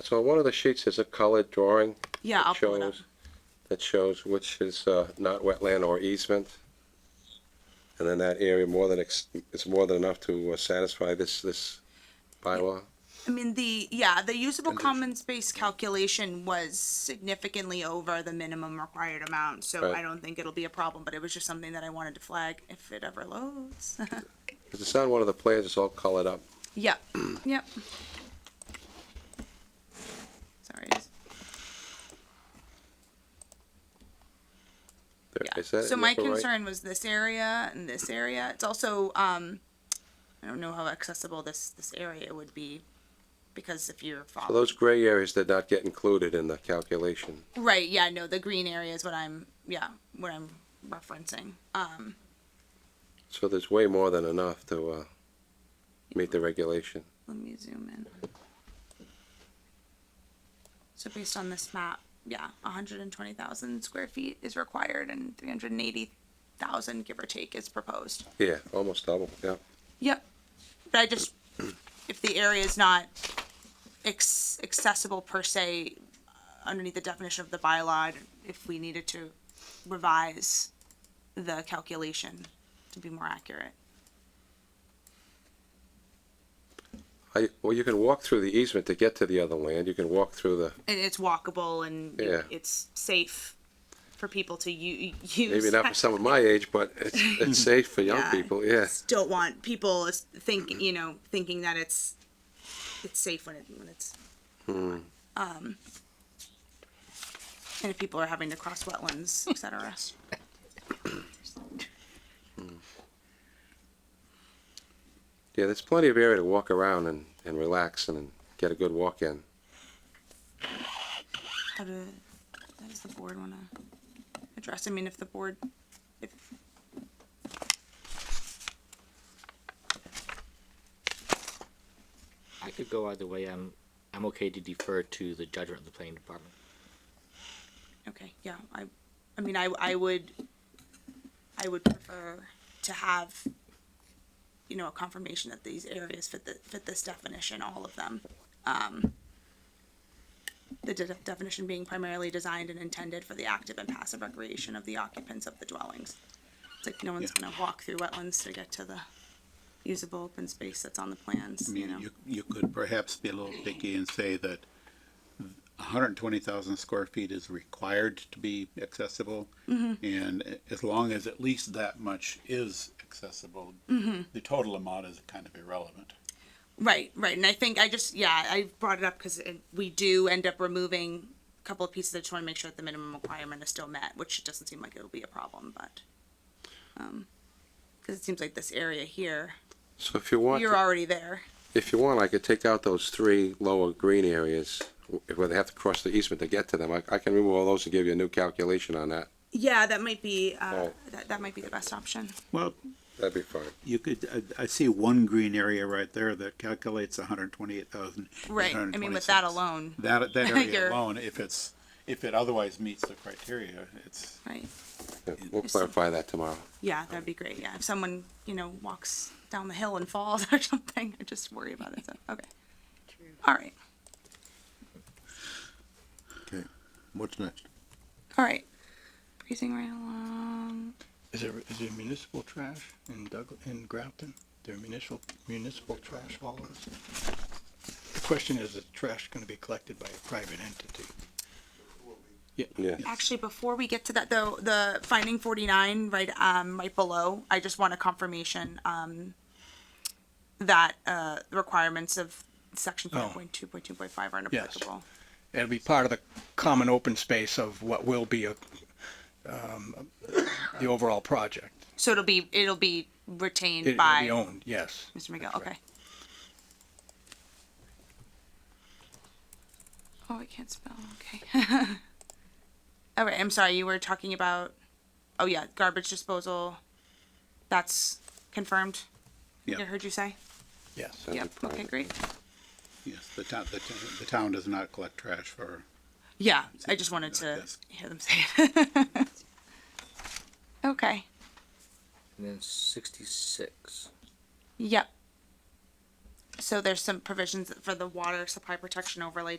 So on one of the sheets is a colored drawing Yeah, I'll pull it up. shows, that shows which is uh, not wetland or easement. And then that area more than, ex- it's more than enough to uh, satisfy this, this bylaw. I mean, the, yeah, the usable common space calculation was significantly over the minimum required amount, so Right. I don't think it'll be a problem, but it was just something that I wanted to flag if it ever loads. 'Cause it's on one of the plans, it's all colored up. Yep, yep. Sorry. There- Yeah. is that So in the my upper right? concern was this area and this area. It's also, um, I don't know how accessible this, this area would be because if you're So following. Those gray areas did not get included in the calculation. Right, yeah, no, the green area is what I'm, yeah, what I'm referencing. Um, So there's way more than enough to uh, meet the regulation. let me zoom in. So based on this map, yeah, hundred and twenty thousand square feet is required and three hundred and eighty thousand, give or take, is proposed. Yeah, almost double, yeah. Yep, but I just, if the area is not ex- accessible per se, uh, underneath the definition of the bylaw, if we needed to revise the calculation to be more accurate. I, well, you can walk through the easement to get to the other land. You can walk through the, and it's walkable and you- Yeah. it's safe for people to u- use. maybe not for someone my age, but it's, it's safe for young people, yeah. Mm-hmm. Just Don't want people is- think you know thinking that it's it's safe when it when it's. Hmm. Um, and if people are having to cross wetlands, etc. Yeah, there's plenty of area to walk around and, and relax and get a good walk in. How do how does uh, the board want to address? I mean, if the board, if I could go either way. I'm I'm okay to defer to the judgment of the planning department. Okay, yeah, I, I mean, I, I would, I would prefer to have, you know, a confirmation that these areas fit the, fit this definition, all of them. Um, The de- definition being primarily designed and intended for the active and passive recreation of the occupants of the dwellings. It's like no one's gonna walk through wetlands to get to the usable open space that's on the plans, I you mean, know? you, you could perhaps be a little picky and say that hundred and twenty thousand square feet is required to be accessible. Mm-hmm. And as long as at least that much is accessible, Mm-hmm. the total amount is kind of irrelevant. Right, right. And I think I just, yeah, I brought it up because we do end up removing a couple of pieces. I just want to make sure that the minimum requirement is still met, which it doesn't seem like it'll be a problem, but. Because it seems like this area here, So if you want, you're already there. if you want, I could take out those three lower green areas w- where they have to cross the easement to get to them. I, I can remove all those and give you a new calculation on that. Yeah, that might be, uh, Right. that, that might be the best option. Well, That'd be fine. you could, I, I see one green area right there that calculates hundred and twenty-eight thousand. Right. I mean, with that alone, That, that You're- area alone, if it's, if it otherwise meets the criteria, it's. right? Yeah, We'll clarify that tomorrow. Yeah, that'd be great. Yeah. If someone, you know, walks down the hill and falls or something, I just worry about it. So, okay. All right. Okay, what's next? All right. Breezing right along. Is there, is there municipal trash in Doug, in Grafton? There are municipal, municipal trash haulers? The question is, is trash gonna be collected by a private entity? Yeah. Actually, before we get to that, though, the finding forty-nine, right, um, right below, I just want a confirmation, um, that, uh, the requirements of section Oh. five point two point two point five are Yes. inapplicable. It'll be part of the common open space of what will be a, um, the overall project. So it'll be, it'll be It- retained It'll be by owned, yes. Mr. Miguel, That's right. okay. Oh, I can't spell, okay. All right, I'm sorry, you were talking about, oh yeah, garbage disposal, that's confirmed? I think I Yeah. heard you say? Yes. That'd be Yep, okay, private. great. Yes, the town, the town, the town does not collect trash for Yeah, I just wanted to Yes. hear them say it. Okay, And then sixty-six. yep. So there's some provisions for the water supply protection overlay